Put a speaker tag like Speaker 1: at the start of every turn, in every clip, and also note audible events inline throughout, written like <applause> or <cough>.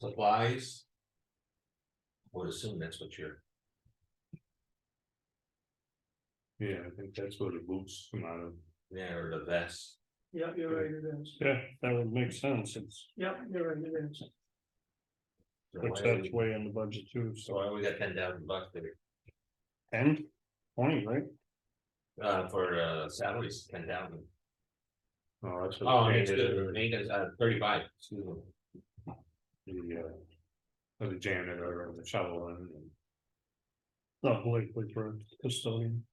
Speaker 1: supplies. Would assume that's what you're.
Speaker 2: Yeah, I think that's where the boots come out of.
Speaker 1: Yeah, or the vest.
Speaker 3: Yeah, you're right, it is.
Speaker 2: Yeah, that would make sense, it's,
Speaker 3: Yeah, you're right, it is.
Speaker 1: So
Speaker 2: which
Speaker 1: why
Speaker 2: that's
Speaker 1: we-
Speaker 2: way in the budget too,
Speaker 1: So
Speaker 2: so
Speaker 1: why we got ten thousand bucks there,
Speaker 2: ten, twenty, right?
Speaker 1: uh, for uh, salaries, ten thousand.
Speaker 2: No, that's.
Speaker 1: Oh, it's good, maintenance, uh, thirty-five, excuse me.
Speaker 2: The uh. for The janitor or the shovel and. Not likely for custodian.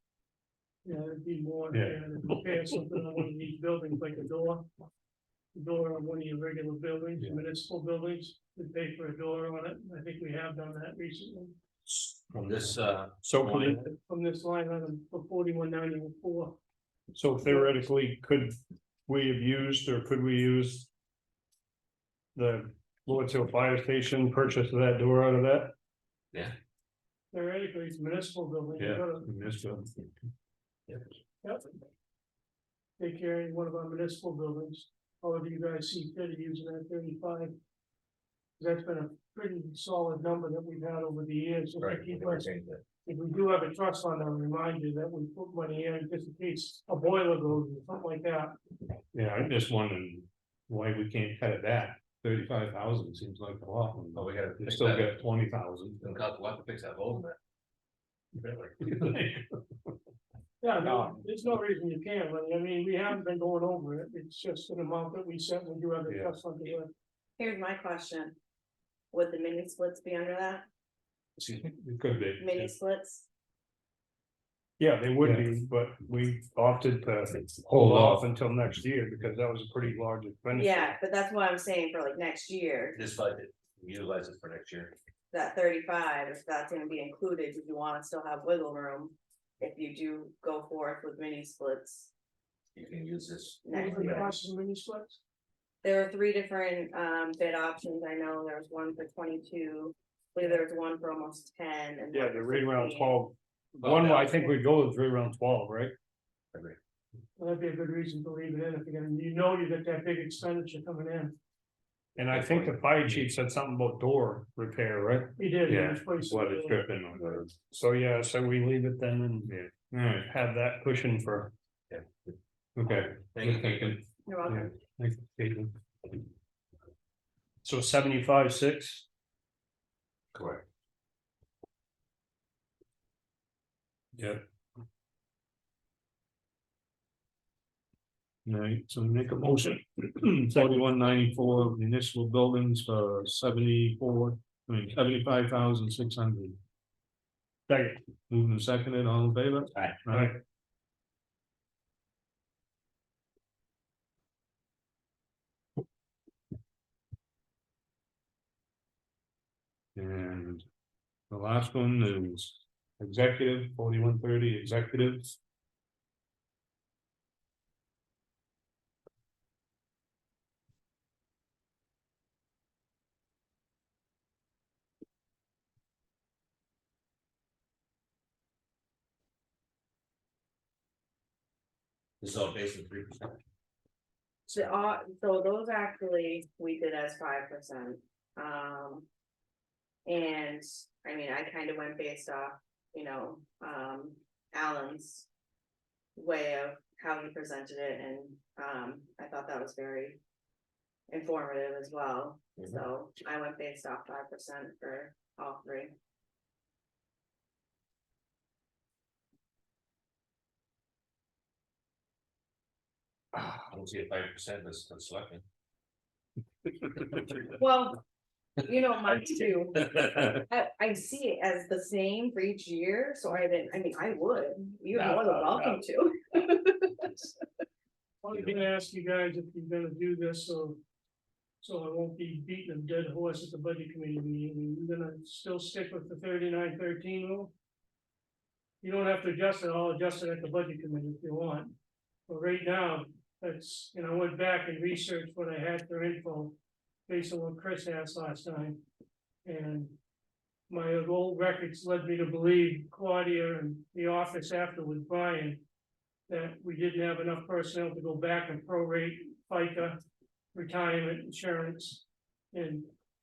Speaker 3: Yeah, it'd be more,
Speaker 2: Yeah.
Speaker 3: yeah, to prepare something on one of these buildings, like a door. a Door on one of your regular buildings,
Speaker 2: Yeah.
Speaker 3: municipal buildings, we pay for a door on it, I think we have done that recently.
Speaker 1: From this, uh,
Speaker 2: So could it-
Speaker 3: From this line item for forty-one ninety-four,
Speaker 2: so theoretically, could we have used or could we use? The Lord's Hill Fire Station purchase of that door out of that?
Speaker 3: theoretically, it's municipal building, you
Speaker 2: Yeah.
Speaker 3: gotta
Speaker 2: Missed it.
Speaker 3: Yep. They carry one of our municipal buildings, however you guys see fit using that thirty-five. That's been a pretty solid number that we've had over the years, so
Speaker 1: right,
Speaker 3: if we
Speaker 1: we
Speaker 3: keep
Speaker 1: never
Speaker 3: us,
Speaker 1: changed that.
Speaker 3: if we do have a trust fund, I'll remind you that we put money in just in case a boiler goes or something like that.
Speaker 2: Yeah, I'm just wondering why we can't cut it back. Thirty-five thousand seems like a lot.
Speaker 1: but we gotta.
Speaker 2: Oh, We
Speaker 1: fix
Speaker 2: still
Speaker 1: that.
Speaker 2: got twenty <laughs> thousand.
Speaker 1: Gonna cost a lot to fix that hole in that.
Speaker 3: Yeah, no, there's no reason you can't, but I mean, we haven't been going over it, it's just an amount that we set when you have a
Speaker 2: Yeah.
Speaker 3: trust fund here.
Speaker 4: Here's my question. Would the mini splits be under that?
Speaker 2: It could
Speaker 4: Mini
Speaker 2: be.
Speaker 4: splits?
Speaker 2: Yeah, they would be, but we opted to hold off until next year because that was a pretty large expenditure.
Speaker 4: Yeah, but that's why I'm saying for like next year,
Speaker 1: This budget, utilize it for next year.
Speaker 4: that thirty-five, if that's gonna be included, if you wanna still have wiggle room. If you do go forth with mini splits.
Speaker 1: You can use this.
Speaker 3: What
Speaker 4: next
Speaker 3: was the
Speaker 4: year.
Speaker 3: cost of the mini splits?
Speaker 4: There were three different um bid options. I know there was one for twenty-two. I believe there was one for almost ten and.
Speaker 2: Yeah,
Speaker 4: one
Speaker 2: they're
Speaker 4: for
Speaker 2: right around
Speaker 4: 16.
Speaker 2: twelve. One, I think we go with right around twelve, right?
Speaker 3: That'd be a good reason to leave it in, if you're gonna, you know you got that big expenditure coming in.
Speaker 2: And I think the fire chief said something about door repair, right?
Speaker 3: He did. he
Speaker 2: Yeah,
Speaker 3: was placed-
Speaker 2: dripping on those. So, yeah, so we leave it then and yeah, have that cushion for.
Speaker 1: Yeah.
Speaker 2: Okay.
Speaker 1: Thank you.
Speaker 2: Thank you.
Speaker 4: You're welcome.
Speaker 2: Thank you. So seventy-five, six,
Speaker 1: Correct.
Speaker 2: right, so make a motion, <clears throat> forty-one ninety-four municipal buildings for seventy-four, I mean, seventy-five thousand six hundred. Second. Moving and seconded, all in favor?
Speaker 1: Aye.
Speaker 2: Aye. And the last one is executive, forty-one thirty, <laughs> executives.
Speaker 1: This is all based on three percent.
Speaker 4: So, uh, so those actually, we did as five percent, um. And, I mean, I kind of went based off, you know, um, Alan's. Way of how he presented it and, um, I thought that was very. Informative as well,
Speaker 1: Mhm.
Speaker 4: so I went based off five percent for all three.
Speaker 1: I don't see a five percent that's that's selecting.
Speaker 4: Well, you know, mine too. I, I see it as the same for each year, so I didn't, I mean, I would, you're
Speaker 1: No,
Speaker 4: more
Speaker 1: no,
Speaker 4: than
Speaker 1: no.
Speaker 4: welcome to.
Speaker 3: I was gonna ask you guys if you're gonna do this, so. So I won't be beating a dead horse at the budget committee meeting, you're gonna still stick with the thirty-nine thirteen rule? You don't have to adjust it, I'll adjust it at the budget committee if you want. But right now, that's, and I went back and researched what I had for info. Based on what Chris asked last time. And my old records led me to believe Claudia and the office after with Brian that we didn't have enough personnel to go back and prorate FICA, retirement insurance, and